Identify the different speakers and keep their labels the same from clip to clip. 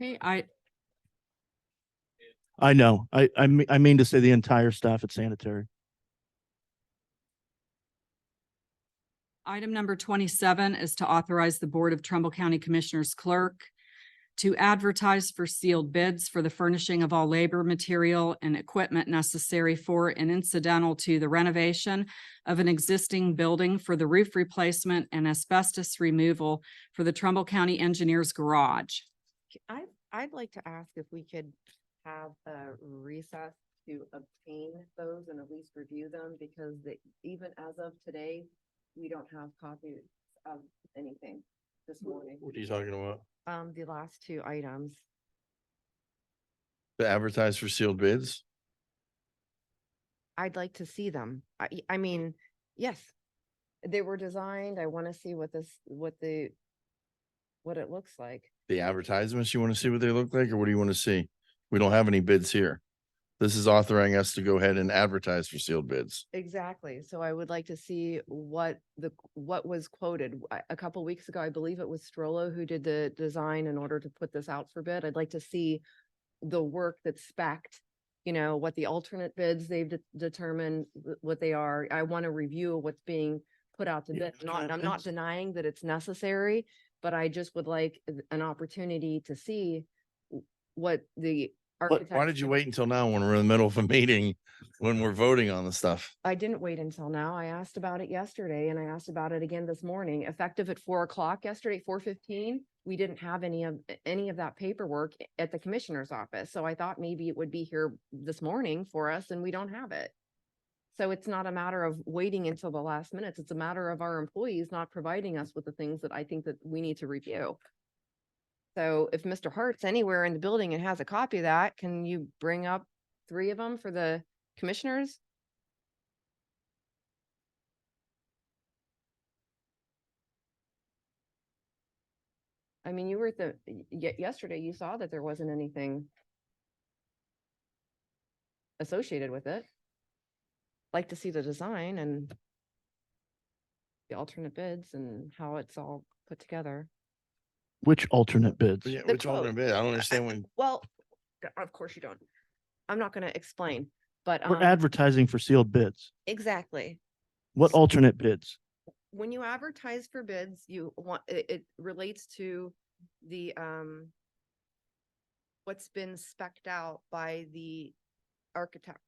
Speaker 1: Hey, I,
Speaker 2: I know. I, I mean, I mean to say the entire staff at sanitary.
Speaker 1: item number twenty-seven is to authorize the Board of Trumbull County Commissioners Clerk to advertise for sealed bids for the furnishing of all labor, material, and equipment necessary for and incidental to the renovation of an existing building for the roof replacement and asbestos removal for the Trumbull County Engineers Garage.
Speaker 3: I, I'd like to ask if we could have a recess to obtain those and at least review them because the, even as of today, we don't have copies of anything this morning.
Speaker 4: What are you talking about?
Speaker 3: Um, the last two items.
Speaker 4: To advertise for sealed bids?
Speaker 3: I'd like to see them. I, I mean, yes. They were designed. I want to see what this, what the, what it looks like.
Speaker 4: The advertisements, you want to see what they look like or what do you want to see? We don't have any bids here. This is authorizing us to go ahead and advertise for sealed bids.
Speaker 3: Exactly. So I would like to see what the, q- what was quoted. W- I- A couple weeks ago, I believe it was Strollo who did the design in order to put this out for bid. I'd like to see the work that's spec'd, you know, what the alternate bids they've de- determined, wh- what they are. I want to review what's being put out to
Speaker 2: Yeah,
Speaker 3: bid. I'm Not,
Speaker 2: kind
Speaker 3: I'm
Speaker 2: of
Speaker 3: not
Speaker 2: bids.
Speaker 3: denying that it's necessary, but I just would like th- an opportunity to see w- what the architect.
Speaker 4: Why did you wait until now when we're in the middle of a meeting, when we're voting on the stuff?
Speaker 3: I didn't wait until now. I asked about it yesterday and I asked about it again this morning, effective at four o'clock yesterday, four fifteen. We didn't have any of, any of that paperwork i- at the commissioner's office, so I thought maybe it would be here this morning for us and we don't have it. So it's not a matter of waiting until the last minutes. It's a matter of our employees not providing us with the things that I think that we need to review. So if Mr. Hart's anywhere in the building and has a copy of that, can you bring up three of them for the commissioners? I mean, you were at the, y- ye- yesterday you saw that there wasn't anything associated with it. Like to see the design and the alternate bids and how it's all put together.
Speaker 2: Which alternate bids?
Speaker 4: Yeah, Which
Speaker 3: quote.
Speaker 4: alternate bid? I don't understand when,
Speaker 3: Well, of course you don't. I'm not gonna explain, but
Speaker 2: We're
Speaker 3: um,
Speaker 2: advertising for sealed bids.
Speaker 3: exactly.
Speaker 2: What alternate bids?
Speaker 3: when you advertise for bids, you want, it, it relates to the, um, what's been spec'd out by the architect.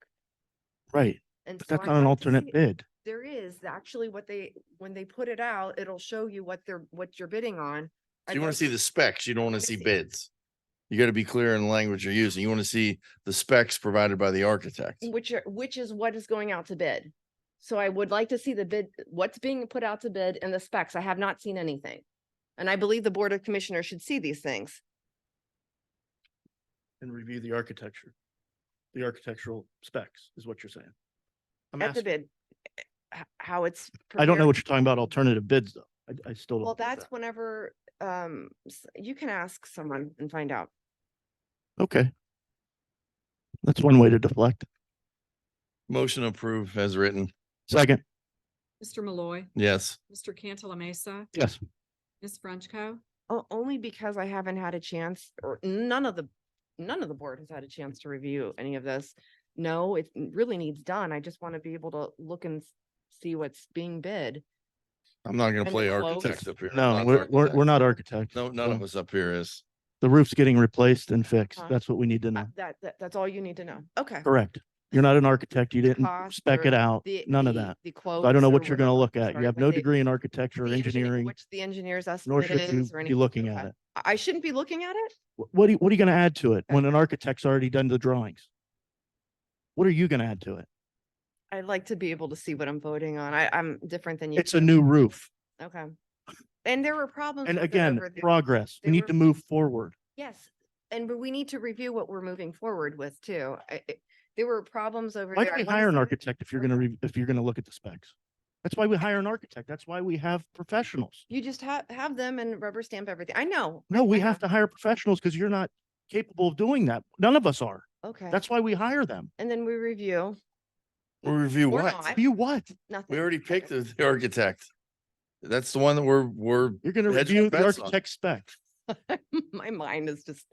Speaker 2: Right,
Speaker 3: And
Speaker 2: but
Speaker 3: so
Speaker 2: that's
Speaker 3: I'd
Speaker 2: not an
Speaker 3: like to see-
Speaker 2: alternate bid.
Speaker 3: There is actually what they, when they put it out, it'll show you what they're, what you're bidding on.
Speaker 4: you want to see the specs, you don't want
Speaker 3: wanna
Speaker 4: to see
Speaker 3: see-
Speaker 4: bids. You got to be clear in the language you're using. You want to see the specs provided by the architect.
Speaker 3: Which are, which is what is going out to bid. So I would like to see the bid, what's being put out to bid and the specs. I have not seen anything. And I believe the Board of Commissioners should see these things.
Speaker 2: And review the architecture. The architectural specs is what you're saying.
Speaker 3: at the bid, eh, h- how it's.
Speaker 2: I don't know
Speaker 3: prepared.
Speaker 2: what you're talking about alternative bids though. I, I still don't.
Speaker 3: Well,
Speaker 2: get
Speaker 3: that's whenever, um, s- you can ask someone and find out.
Speaker 2: that. Okay. That's one way to deflect.
Speaker 4: Motion approved as written.
Speaker 2: Second,
Speaker 1: Mr. Malloy,
Speaker 4: Yes.
Speaker 1: Mr. Cantala Mesa,
Speaker 2: yes,
Speaker 1: Ms. Frenchco.
Speaker 3: O- Only because I haven't had a chance, or none of the, none of the board has had a chance to review any of this. No, it n- really needs done. I just want to be able to look and s- see what's being bid.
Speaker 4: I'm not
Speaker 3: And
Speaker 4: gonna
Speaker 3: the
Speaker 4: play
Speaker 3: quote.
Speaker 4: architect up here. I'm not
Speaker 2: no,
Speaker 4: an
Speaker 2: we're, we're,
Speaker 4: architect.
Speaker 2: we're not architects.
Speaker 4: No, none
Speaker 2: No.
Speaker 4: of us up here is.
Speaker 2: The roof's getting replaced and fixed.
Speaker 3: Uh,
Speaker 2: That's what we need to
Speaker 3: Uh,
Speaker 2: know.
Speaker 3: That, that, that's all you need to know. Okay.
Speaker 2: Correct. You're not an architect. You didn't
Speaker 3: Cost
Speaker 2: spec
Speaker 3: or
Speaker 2: it out.
Speaker 3: the-
Speaker 2: None of
Speaker 3: the-
Speaker 2: that.
Speaker 3: The
Speaker 2: So
Speaker 3: quotes.
Speaker 2: I don't know
Speaker 3: or
Speaker 2: what you're gonna
Speaker 3: whatever.
Speaker 2: look at.
Speaker 3: Oh, Sorry,
Speaker 2: You have
Speaker 3: what
Speaker 2: no
Speaker 3: they-
Speaker 2: degree in architecture or
Speaker 3: the engineer-
Speaker 2: engineering,
Speaker 3: Which the engineer's
Speaker 2: nor
Speaker 3: estimate
Speaker 2: should you
Speaker 3: is or
Speaker 2: be
Speaker 3: anything.
Speaker 2: looking
Speaker 3: Okay.
Speaker 2: at it.
Speaker 3: I I shouldn't be looking at it?
Speaker 2: Wh- What, are you- what are you gonna add to it when an
Speaker 3: Okay.
Speaker 2: architect's already done the drawings? What are you gonna add to it?
Speaker 3: I'd like to be able to see what I'm voting on. I, I'm different than you.
Speaker 2: It's a
Speaker 3: two.
Speaker 2: new roof.
Speaker 3: Okay. And there were problems.
Speaker 2: And
Speaker 3: with it
Speaker 2: again,
Speaker 3: over the-
Speaker 2: progress. We
Speaker 3: they
Speaker 2: need
Speaker 3: were-
Speaker 2: to move forward.
Speaker 3: Yes, and but we need to review what we're moving forward with too. I- I- There were problems over
Speaker 2: Why
Speaker 3: there.
Speaker 2: do
Speaker 3: I
Speaker 2: we
Speaker 3: wanna
Speaker 2: hire an
Speaker 3: see-
Speaker 2: architect if you're gonna, re- if you're gonna look at the specs? That's why we hire an architect. That's why we have professionals.
Speaker 3: You just have, have them and rubber stamp everything. I know.
Speaker 2: No, we
Speaker 3: I
Speaker 2: have to hire professionals because you're not capable of doing that. None of us are.
Speaker 3: Okay,
Speaker 2: That's why we hire them.
Speaker 3: and then we review
Speaker 4: We review
Speaker 3: We're
Speaker 4: what?
Speaker 3: not.
Speaker 2: You what?
Speaker 3: nothing.
Speaker 4: We already picked
Speaker 3: Okay.
Speaker 4: the, the architect. That's the one that we're, we're,
Speaker 2: You're gonna
Speaker 4: Hedge
Speaker 2: review the
Speaker 4: bets on.
Speaker 2: architect spec.
Speaker 3: My mind is just